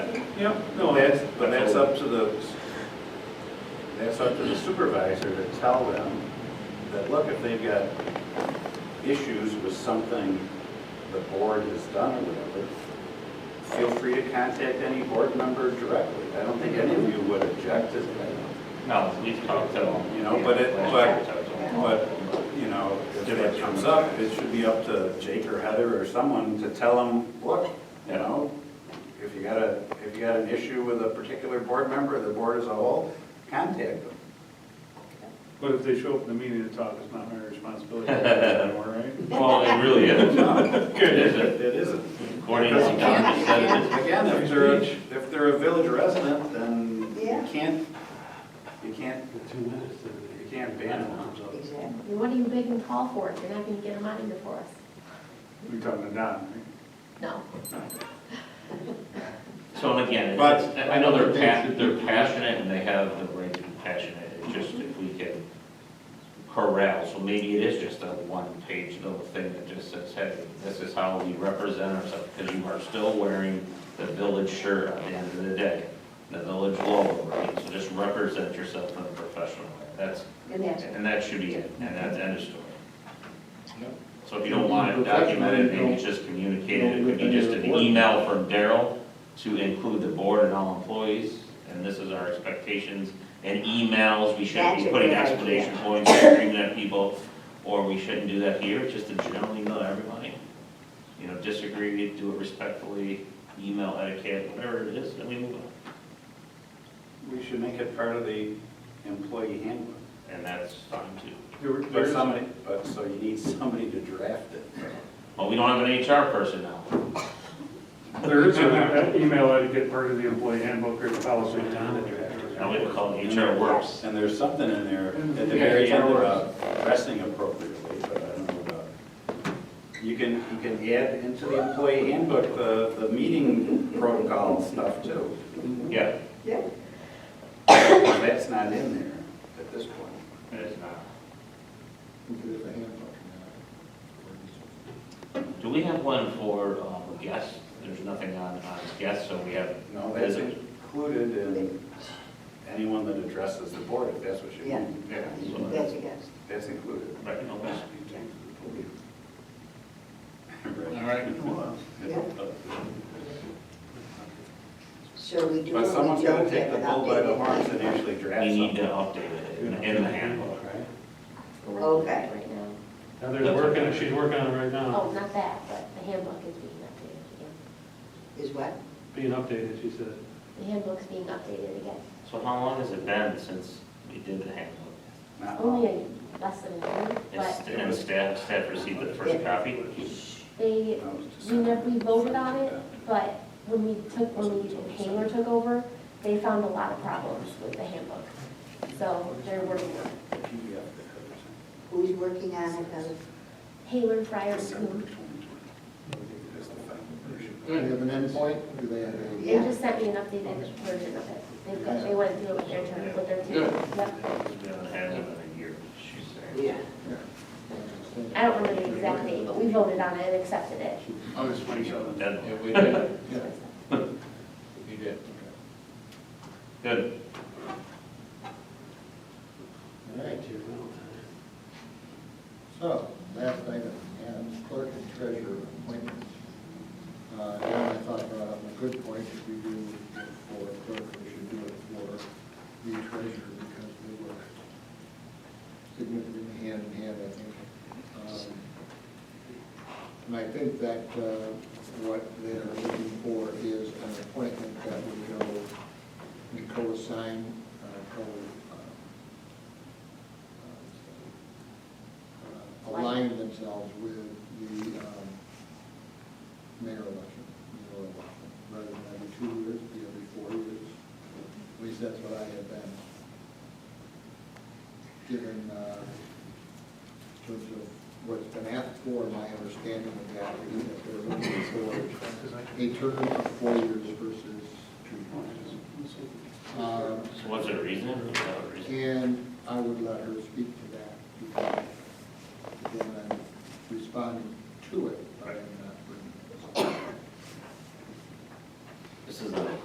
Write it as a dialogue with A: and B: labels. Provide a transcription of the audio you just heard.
A: Yep, no,
B: Well, that's,
A: that's,
B: but that's up to the, that's up to the supervisor to tell them that, look, if they've got issues with something the board has done or whatever, feel free to contact any board member directly. I don't think any of you would object to that,
C: No, we've talked to them.
B: you know, but it,
C: Last
B: but,
C: year, so-
B: but, you know, if that comes up, it should be up to Jake or Heather or someone to tell them, look, you know, if you got a, if you got an issue with a particular board member, the board as a whole, contact them.
A: but if they show up in the meeting to talk, it's not my responsibility anymore, right?
C: Well, it really isn't. It isn't.
B: It isn't.
C: According to what Don just said, it is.
B: Again, if they're, a- if they're a village resident, then you
D: Yeah.
B: can't, you can't, you can't ban them.
D: Exactly.
E: What do you make them call for if you're not gonna get them out of here for us?
A: We're talking to Don,
E: No.
C: So and again,
B: But-
C: it's- I know they're passionate, they're passionate and they have the right to be passionate. It's just if we can corral, so maybe it is just a one-page little thing that just says, hey, this is how we represent ourselves. Because you are still wearing the village shirt at the end of the day, the village logo, right? So just represent yourself in a professional way. That's,
D: And that's,
C: and that should be it, and that's end of story.
A: Yep.
C: So if you don't want it documented, maybe it's just communicated, it could be just an email from Daryl to include the board and all employees, and this is our expectations, and emails, we shouldn't
D: That's
C: be
D: a
C: putting
D: good idea.
C: explanation points, and screaming at people, or we shouldn't do that here, just to generally email everybody. You know, disagree, do it respectfully, email etiquette, whatever it is, and we move on.
B: We should make it part of the employee handbook.
C: And that's fine too.
A: right?
B: But somebody, but, so you need somebody to draft it.
C: Well, we don't have an HR person now.
A: There is an email etiquette part of the employee handbook or the policy.
C: Now we would call it HR works.
B: And there's something in there at the very end about dressing appropriately, but I don't know about. You can, you can add into the employee handbook the, the meeting protocol and stuff too.
C: Yeah,
D: yeah,
B: That's not in there at this point.
C: it is not. Do we have one for um, guests? There's nothing on, on guests, so we have,
B: No, that's
C: Is it?
B: included in anyone that addresses the board, if that's what you mean.
C: Yeah.
D: that's against.
B: That's included.
C: right, no guests.
B: Right.
D: Yeah. So we do.
B: But someone's gotta
D: what we
B: take the
D: don't
B: bull by
D: have
B: the
D: without
B: horns and
D: being-
B: actually draft
C: We need to
B: something.
C: update it in in the handbook.
B: Right?
D: Okay.
E: Right now.
F: Heather's working, she's working on it right now,
E: Oh, not that, but the handbook is being updated again.
D: Is what?
F: being updated, she said.
E: The handbook's being updated again.
C: So how long has it been since we did the handbook?
B: Not
E: Only
B: long.
E: a less than a year,
C: And
E: but
C: st- And staff, staff received the first copy?
E: they, we never, we voted on it, but when we took, when we, Hanger took over, they found a lot of problems with the handbook. So they're working on it.
B: The PDF that covers it.
D: Who's working on it, Heather?
E: Hanger, Fryer,
B: December
E: Coon.
B: 2020. That's the final version.
G: Do they have an endpoint? Do they have a?
E: They just sent me an updated version of it. They've got, they went through it with their turn, with their team. Yep.
C: We haven't had one in a year, she's saying.
D: Yeah.
E: I don't remember the exact date, but we voted on it and accepted it.
G: Oh, it's
C: We show the deadline.
G: we did, we did.
C: Good.
G: All right. So, last item, and clerk and treasurer appointments. Uh, and I thought brought up a good point, if we do it for clerk, we should do it for the treasurer, because we work significantly hand in hand, I think. Um, And I think that uh, what they're looking for is an appointment that would go, we co-assign, uh, co, uh, uh, align themselves with the um, mayor election, mayor election, rather than every two years, be every four years. At least that's what I have been given uh, in terms of what's been asked for, my understanding of that is that they're looking for a term of four years versus two years. Um,
C: So what's the reason? Without a reason?
G: And I would let her speak to that, because